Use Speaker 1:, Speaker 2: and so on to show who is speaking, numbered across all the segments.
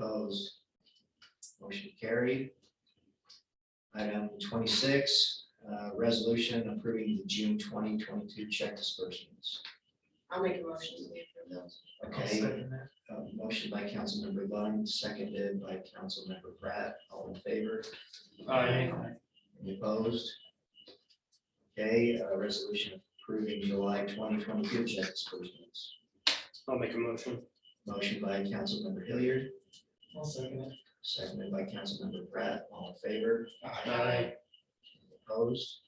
Speaker 1: opposed? Motion carried. Item twenty-six, uh, resolution approving the June twenty twenty-two check disbursements.
Speaker 2: I'll make a motion. that we approve those.
Speaker 1: Okay, uh, motion by Councilmember Lund, seconded by Councilmember Pratt, all in favor? Any opposed? Okay, uh, resolution approving July twenty twenty-two check disbursements.
Speaker 3: I'll make a motion.
Speaker 1: Motion by Councilmember Hilliard,
Speaker 3: I'll second it.
Speaker 1: seconded by Councilmember Pratt, all in favor?
Speaker 3: Aye.
Speaker 1: Opposed?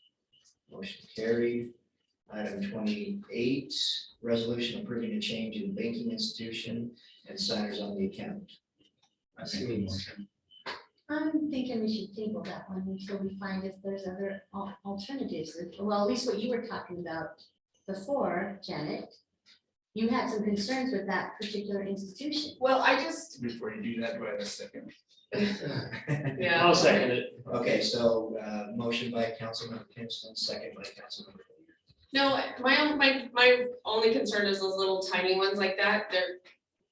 Speaker 1: Motion carried. Item twenty-eight, resolution approving a change in banking institution and signers on the account.
Speaker 3: I see a motion.
Speaker 2: I'm thinking we should table that one until we find if there's other al- alternatives, well, at least what you were talking about before, Janet. You had some concerns with that particular institution.
Speaker 4: Well, I just,
Speaker 5: Before you do that, do I have a second?
Speaker 4: yeah.
Speaker 3: I'll second it.
Speaker 1: Okay, so, uh, motion by Councilmember Kinnison, second by Councilmember. Hilliard.
Speaker 4: No, my, own- my, my only concern is those little tiny ones like that, they're,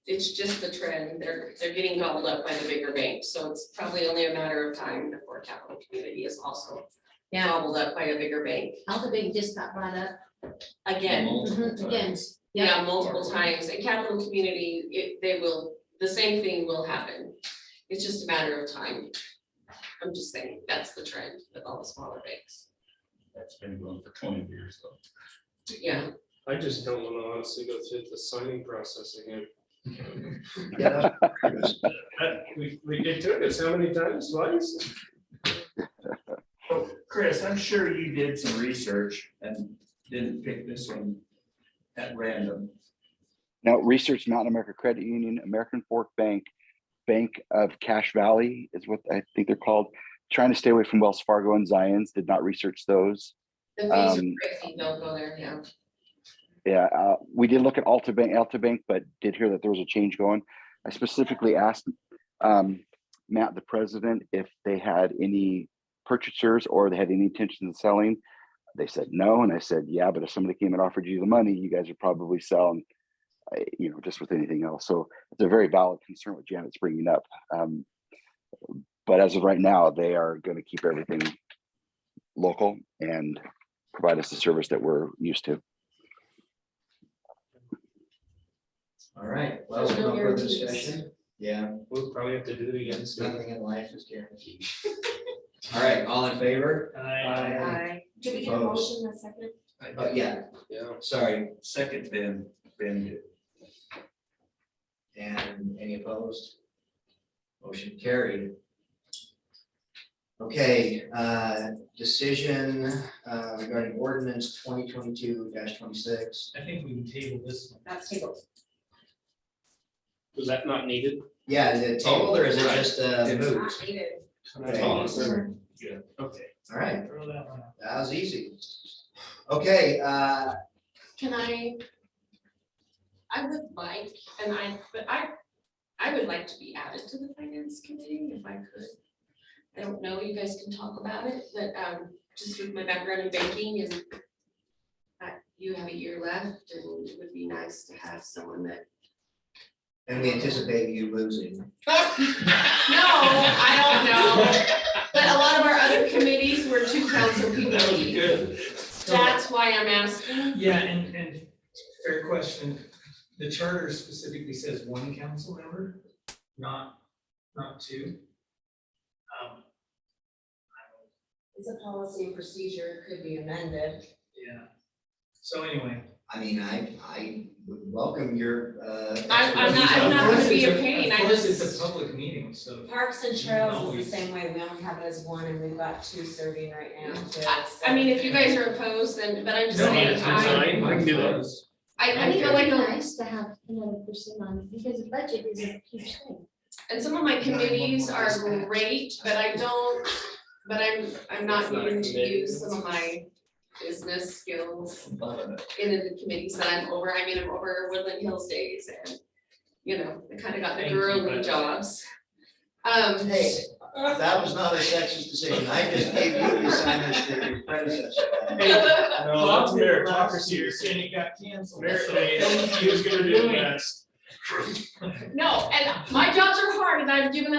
Speaker 4: it's just the trend, they're, they're getting gobbled up by the bigger banks, so it's probably only a matter of time before Capital Community is also
Speaker 2: Yeah.
Speaker 4: gobbled up by a bigger bank,
Speaker 2: Alpha Bank just got brought up
Speaker 4: again,
Speaker 5: Multiple
Speaker 2: again.
Speaker 5: times.
Speaker 4: yeah, multiple times, and Capital Community, it, they will, the same thing will happen. It's just a matter of time. I'm just saying, that's the trend with all the smaller banks,
Speaker 5: That's been going for twenty years though.
Speaker 4: yeah.
Speaker 3: I just don't want to honestly go through the signing process again.
Speaker 1: Yeah, that's-
Speaker 3: Uh, We, we, it took us how many times, twice?
Speaker 5: Chris, I'm sure you did some research and didn't pick this one at random.
Speaker 6: Now, research Mountain America Credit Union, American Fork Bank, Bank of Cash Valley is what I think they're called. Trying to stay away from Wells Fargo and Zions, did not research those.
Speaker 4: The fees
Speaker 6: Um,
Speaker 4: are crazy, don't go there, yeah.
Speaker 6: Yeah, uh, we did look at Alta Bank, Alta Bank, but did hear that there was a change going. I specifically asked um, Matt, the president, if they had any purchasers or they had any intention of selling. They said no, and I said, yeah, but if somebody came and offered you the money, you guys would probably sell. And I, you know, just with anything else, so it's a very valid concern what Janet's bringing up. Um, but as of right now, they are going to keep everything local and provide us the service that we're used to.
Speaker 1: All right, well,
Speaker 4: There's no
Speaker 1: no further
Speaker 4: guarantees.
Speaker 1: discussion. Yeah,
Speaker 3: We'll probably have to do it again soon.
Speaker 1: nothing in life is guaranteed. All right, all in favor?
Speaker 3: Aye.
Speaker 4: Did
Speaker 1: we get a motion
Speaker 4: in a second?
Speaker 1: Oh, yeah,
Speaker 3: Yeah.
Speaker 1: sorry.
Speaker 5: Second, Ben, Ben did.
Speaker 1: And any opposed? Motion carried. Okay, uh, decision uh, regarding ordinance twenty twenty-two twenty-six.
Speaker 7: I think we can table this one.
Speaker 4: That's tabled.
Speaker 3: Was that not needed?
Speaker 1: Yeah, is it tabled or is it
Speaker 5: Oh, right.
Speaker 1: just uh,
Speaker 5: It's-
Speaker 1: moved? Okay.
Speaker 3: Awesome. Okay.
Speaker 1: All right,
Speaker 7: Throw that one out.
Speaker 1: that was easy. Okay, uh,
Speaker 4: Can I? I would like, and I, but I, I would like to be added to the finance committee if I could. I don't know, you guys can talk about it, but um, just with my background in banking and I- you have a year left and it would be nice to have someone that
Speaker 1: and we anticipate you losing.
Speaker 4: No, I don't know. But a lot of our other committees were two council people
Speaker 3: That was
Speaker 4: each.
Speaker 3: good.
Speaker 4: That's why I'm asking.
Speaker 7: Yeah, and, and fair question. The charter specifically says one council member, not, not two. Um,
Speaker 2: It's a policy and procedure, could be amended.
Speaker 7: yeah. So anyway,
Speaker 1: I mean, I, I would welcome your. uh,
Speaker 4: I- I'm not- I'm not gonna be a pain, I
Speaker 7: Of course, it's
Speaker 4: just-
Speaker 7: a public meeting, so.
Speaker 2: Parks and Trails is the same way, we only have it as one, and we've got two serving right now. too,
Speaker 4: I-
Speaker 2: so-
Speaker 4: I mean, if you guys are opposed, then, but I'm just
Speaker 3: No,
Speaker 4: saying, I,
Speaker 3: I, I can do those.
Speaker 4: I, I
Speaker 2: I
Speaker 4: feel
Speaker 2: feel
Speaker 4: like, a-
Speaker 2: nice to have another person on, because the budget is a huge thing.
Speaker 4: and some of my committees are great, but I don't, but I'm, I'm not needing to use some of my business skills
Speaker 5: Loving it.
Speaker 4: in the committees that I'm over. I mean, I'm over Woodland Hills days and, you know, I kind of got the
Speaker 3: Thank you,
Speaker 4: girly
Speaker 3: but-
Speaker 4: jobs. Um,
Speaker 1: Hey, that was not a sexist decision. I just gave you the assignment that your predecessor. had.
Speaker 3: Lots of meritocracy.
Speaker 7: And it got canceled.
Speaker 3: Merit, he was gonna do the best.
Speaker 4: No, and my jobs are hard and I've given